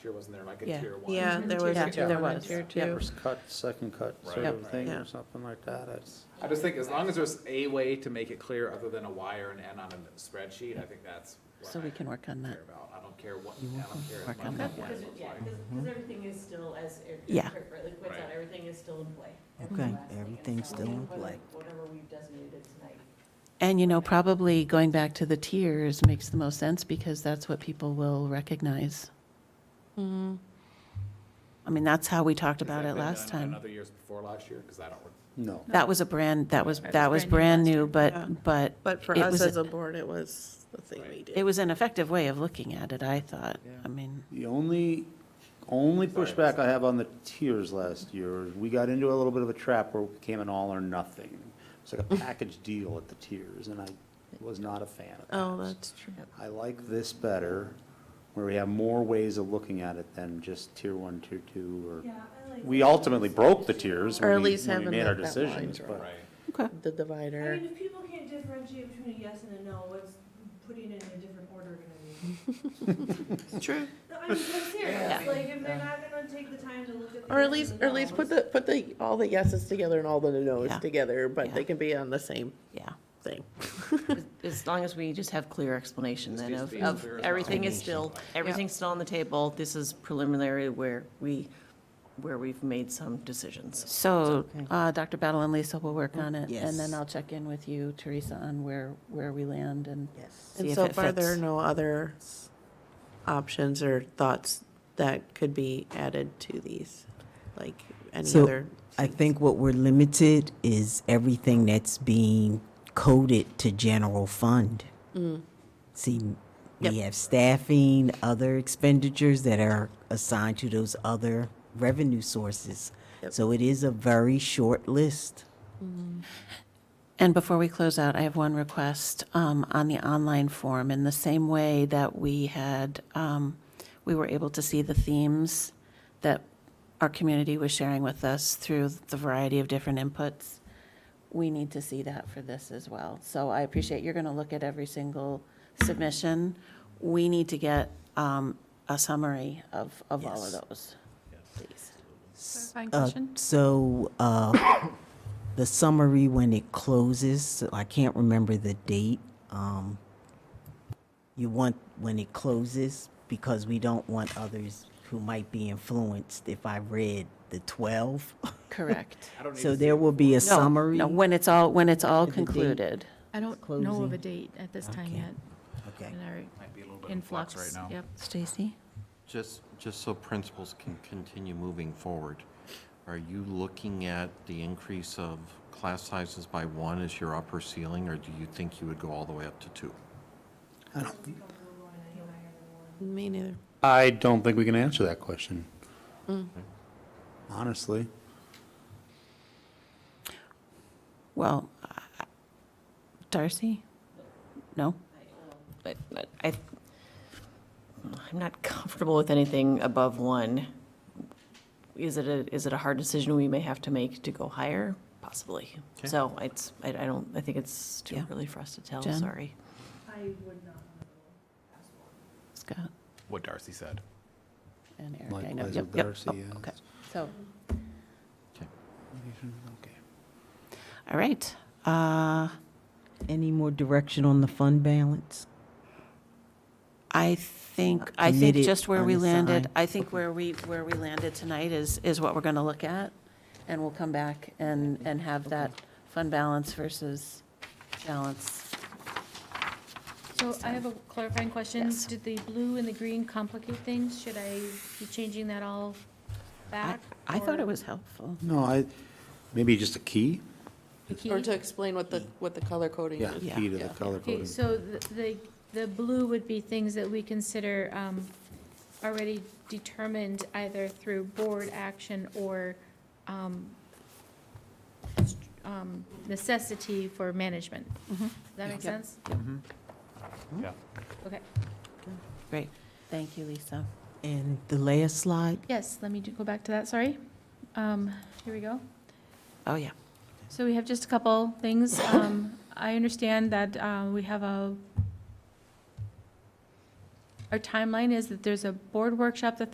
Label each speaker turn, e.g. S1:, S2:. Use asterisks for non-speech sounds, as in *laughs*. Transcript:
S1: tier wasn't there, like a
S2: Yeah.
S1: tier one.
S3: Yeah,
S2: Mhm.
S3: there
S2: Tier
S3: was,
S2: two,
S3: there
S2: one and
S3: was,
S2: tier
S3: yeah.
S2: two.
S4: First cut, second cut sort
S1: Right.
S4: of thing,
S3: Yeah.
S4: or something like that, it's,
S1: I just think as long as there's a way to make it clear other than a Y or an N on a spreadsheet, I think that's what
S2: So
S1: I
S2: we can work on that.
S1: care about. I don't care what, I don't care as
S2: Work
S1: much
S2: on that.
S1: as what it
S5: Because,
S1: looks
S5: yeah,
S1: like.
S5: because, because everything is still, as Eric
S2: Yeah.
S5: rightly points out,
S1: Mm-hmm. Right.
S5: everything is still in play. That's the
S6: Okay.
S5: last thing.
S6: Everything's
S5: So
S6: still in
S5: whatever-
S6: play.
S5: Whatever we've designated tonight.
S2: And, you know, probably going back to the tiers makes the most sense because that's what people will recognize.
S7: Mm-hmm.
S2: I mean, that's how we talked
S1: Has
S2: about
S1: that
S2: it
S1: been
S2: last
S1: done on
S2: time.
S1: Other years before last year, because I don't, re-
S4: no.
S2: That was a brand, that was,
S3: That
S2: that
S3: was
S2: was brand
S3: brand
S2: new,
S3: yeah.
S2: but, but
S3: But for
S2: It
S3: us
S2: was-
S3: as a board, it was the thing we
S1: Right.
S3: did.
S2: it was an effective way of looking at it, I thought.
S4: Yeah.
S2: I mean,
S4: The only, only
S1: Sorry,
S4: pushback
S1: that's-
S4: I have on the tiers last year, is we got into a little bit of a trap where it became an all or nothing.
S3: *laughs*
S4: It's like a package deal at the tiers, and I was not a fan of that.
S3: Oh, that's true.
S4: I like this better, where we have more ways of looking at it than just tier one, tier two, or, we ultimately broke the tiers
S3: Or at
S4: when we,
S3: least
S4: when we
S3: having
S4: made
S3: the-
S4: our
S3: that
S4: decisions,
S3: line's
S4: but.
S1: right?
S3: The
S8: I
S3: divider.
S8: mean, if people can't differentiate between a yes and a no, what's putting it in a different order gonna
S7: *laughs*
S3: True.
S8: be? No, I mean, I'm serious, like, if they're not gonna take the time to look at the.
S3: Or at
S8: yes
S3: least,
S8: and
S3: or at least put
S8: no's.
S3: the, put the, all the yeses together and all the
S2: Yeah.
S3: noes together,
S2: Yeah.
S3: but they can be on the same
S2: yeah.
S3: thing.
S7: As long as we just have clear explanation
S1: Just
S7: then
S1: needs
S7: of,
S1: to be as
S7: of
S1: clear as
S7: everything is
S1: possible.
S7: still, everything's still on the table. This is preliminary where we, where we've made some decisions.
S2: So, uh, Dr. Battle and Lisa will work on it, and
S6: Yes.
S2: then I'll check in with you, Teresa, on where, where we land and
S6: Yes.
S2: see
S3: And
S2: if
S3: so
S2: it
S3: far, there are
S2: fits.
S3: no other options or thoughts that could be added to these, like any
S6: So-
S3: other.
S6: I think what we're limited is everything that's being coded to general fund. See, we
S3: Yep.
S6: have staffing, other expenditures that are assigned to those other revenue sources.
S3: Yep.
S6: So it is a very short list.
S2: And before we close out, I have one request um, on the online form. In the same way that we had, um, we were able to see the themes that our community was sharing with us through the variety of different inputs, we need to see that for this as well. So I appreciate you're going to look at every single submission. We need to get um, a summary of, of all of
S6: Yes.
S2: those. please.
S6: Clarifying question? Uh, So, uh, *coughs* the summary when it closes, so I can't remember the date. um, You want, when it closes, because we don't want others who might be influenced if I read the *laughs* 12.
S2: Correct.
S1: I don't need
S6: So
S1: to see
S6: there
S1: it.
S6: will be a
S2: No,
S6: summary.
S2: No, when it's all, when it's all
S6: At the date.
S2: concluded.
S9: I don't know of a
S6: Closing.
S9: date at this time
S6: Okay.
S9: yet.
S6: Okay.
S9: and our
S1: Might be a little bit in flux
S9: Influx
S1: right now.
S9: Yep.
S2: Stacy?
S10: Just, just so principals can continue moving forward, are you looking at the increase of class sizes by one as your upper ceiling, or do you think you would go all the way up to two?
S3: *laughs* Me neither.
S4: I don't think we can answer that question.
S2: Mm.
S4: Honestly.
S2: Well, I- Darcy? No?
S7: But but I, I'm not comfortable with anything above one. Is it a, is it a hard decision we may have to make to go higher? Possibly.
S10: Okay.
S7: So it's, I, I don't, I think it's too
S2: Yeah.
S7: early for us to tell,
S2: Jen?
S7: sorry.
S8: I would not wanna go past one.
S2: Scott
S1: What Darcy said.
S2: and Eric? I know.
S4: Likewise
S2: Yep,
S4: with
S2: yep.
S4: Darcy,
S2: Oh,
S4: yes.
S2: Okay, so,
S10: Okay.
S4: Okay.
S2: all right. Uh,
S6: Any more direction on the fund balance? Uh,
S2: I think, I think
S6: Committed,
S2: just where we landed,
S6: unassigned.
S2: I think where we, where we landed tonight is, is what we're going to look at. And we'll come back and, and have that fund balance versus balance.
S9: So I have a clarifying question.
S2: Yes.
S9: Did the blue and the green complicate things? Should I be changing that all
S2: I
S9: back?
S2: I thought
S9: or
S2: it was helpful.
S4: No, I, maybe just a key?
S9: the key?
S3: Or to explain what the, what the color coding
S4: Yeah,
S3: is.
S4: key to the
S2: Yeah.
S4: color
S9: Okay,
S4: coding.
S9: so the- the, the blue would be things that we consider um, already determined either through board action or um, s- um, necessity for management. Does that make
S2: Yeah.
S9: sense?
S1: Yeah.
S9: Okay.
S2: Great. Thank you, Lisa.
S6: And the last slide?
S9: Yes, let me do- go back to that, sorry. Um, Here we go.
S2: Oh, yeah.
S9: So we have just a couple things. Um, I understand that uh, we have a, our timeline is that there's a board workshop the